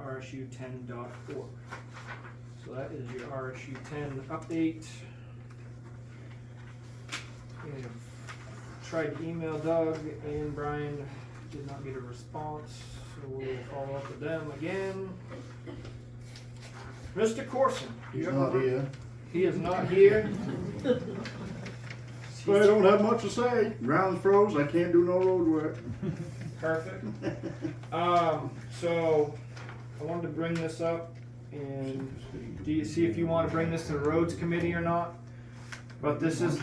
RSU ten So that is your RSU ten update. We have tried to email Doug and Brian, did not get a response, so we'll follow up with them again. Mr. Corson. do you He's have a not re- here. He is not here. But I don't have much to say. Ground's froze, I can't do no road work. Perfect. Um, so I wanted to bring this up and do you see if you want to bring this to the roads committee or not? But this is,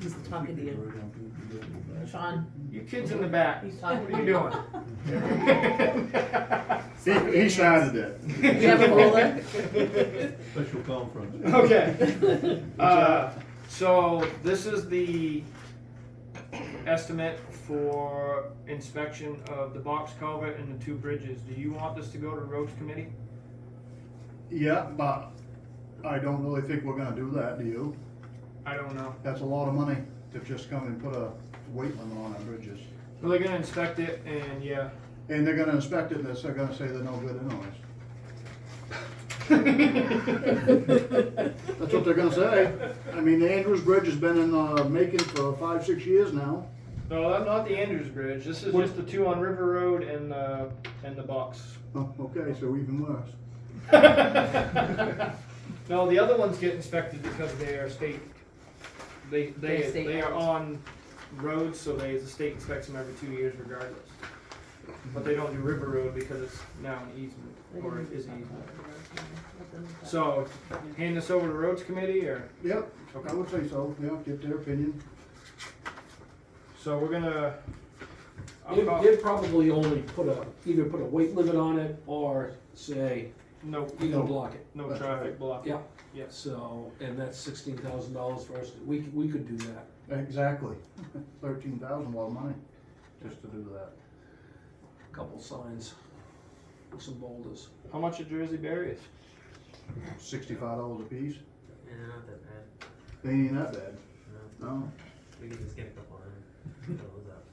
He's talking to you. Sean, you kids in the back, he's what talking to are you you. doing? He, he started it. Do you have a roller? Special conference. Okay. Uh, so this is the estimate for inspection of the box culvert and the two bridges. Do you want this to go to roads committee? Yeah, but I don't really think we're gonna do that, do you? I don't know. That's a lot of money to just come and put a weight limit on our bridges. Well, they're gonna inspect it and yeah. And they're gonna inspect it, and they're gonna say they're no good anyways. That's what they're gonna say. I mean, the Andrews Bridge has been in the making for five, six years now. No, that's not the Andrews Bridge. This is just the two on River Road and the and the box. Oh, okay, so even worse. no, the other ones get inspected because they are state. They they They're state they are roads. on roads, so they the state inspects them every two years regardless. But they don't do River Road because it's now an easement or it is an easement. So hand this over to Roads Committee or Yep, I would say so, yeah, get their opinion. so we're gonna. I'll They'd, call- they'd probably only put a, either put a weight limit on it or say, no you know, block it. no traffic block. Yeah. Yes. So, and that's sixteen thousand dollars for us, to- we, c- we could do that. Exactly. Thirteen thousand, a lot of money, just to do that. Couple signs, with some boulders. How much are Jersey berries? Sixty-five dollars a piece, Yeah, not that bad. they ain't that bad, No, no. we can just get a couple hundred. Fill those up.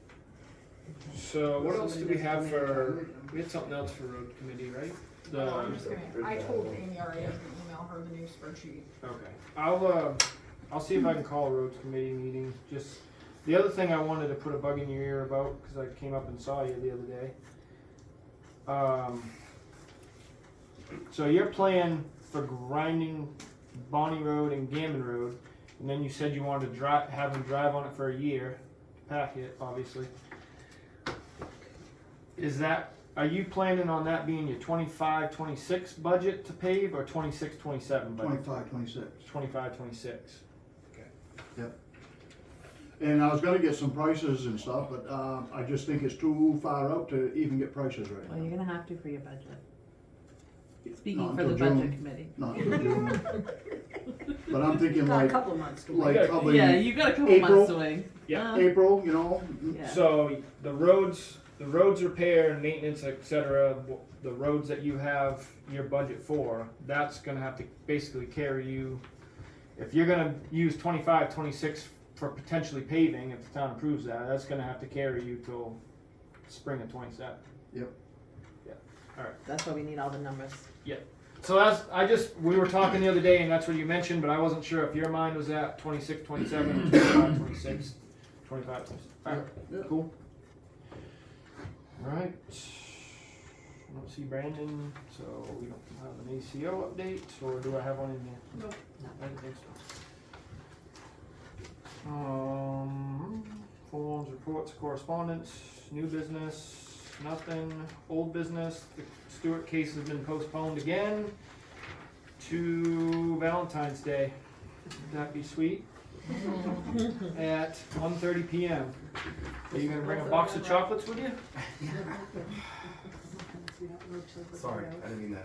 So what else do we have for, we had something else for road committee, right? The, No, I'm okay, just gonna, I told Amy already, I was gonna email her the new spreadsheet. I'll, uh, I'll see if I can call a roads committee meeting, just, the other thing I wanted to put a bug in your ear about, cause I came up and saw you the other day. Um, so your plan for grinding Bonnie Road and Gammon Road, and then you said you wanted to drive, have them drive on it for a year, pack it, obviously. Is that, are you planning on that being your 25, 26 budget to pave or 26, 27 budget? Twenty-five, twenty-six. Twenty-five, twenty-six. And I was gonna get some prices and stuff, but, uh, I just think it's too far out to even get prices right Well, now. you're gonna have to for your budget. Not Speaking for the until June. budget committee. Not until June. But I'm thinking like, couple months to like probably Yeah, you got a couple April. months to wait. Yeah. Uh, April, you know, yeah. So the roads, the roads repair, maintenance, et cetera, w- the roads that you have your budget for, that's gonna have to basically carry you. If you're gonna use twenty-five, twenty-six for potentially paving, if the town approves that, that's gonna have to carry you till spring of twenty-seven. That's why we need all the numbers. So that's, I just, we were talking the other day and that's what you mentioned, but I wasn't sure if your mind was at twenty-six, twenty-seven, or twenty-five, twenty-six, twenty-five, twenty-six. Alright, Yeah. cool. Alright. I don't see Brandon, so we don't have an ACO update, or do I have one in there? Nope. I didn't think so. Um, forms, reports, correspondence, new business, nothing, old business, the Stewart case has been postponed again to Valentine's Day. Would that be sweet? Hmm. At 1:30 p.m. Are you gonna bring a box of chocolates with you? Sorry, I didn't mean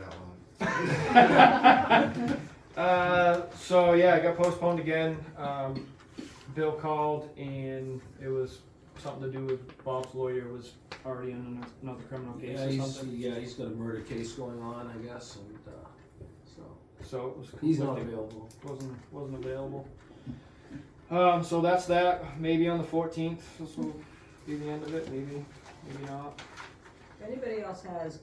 that out loud. Uh, so yeah, it got postponed again. Um, Bill called and it was something to do with Bob's lawyer was already in ano- another criminal case Yeah, or he's, something. yeah, he's got a murder case going on, I guess, and, uh, so, So it was he's not conflicting. available. wasn't wasn't available. Um, so that's that. Maybe on the fourteenth, this will be the end of it. Maybe, maybe not. If anybody else has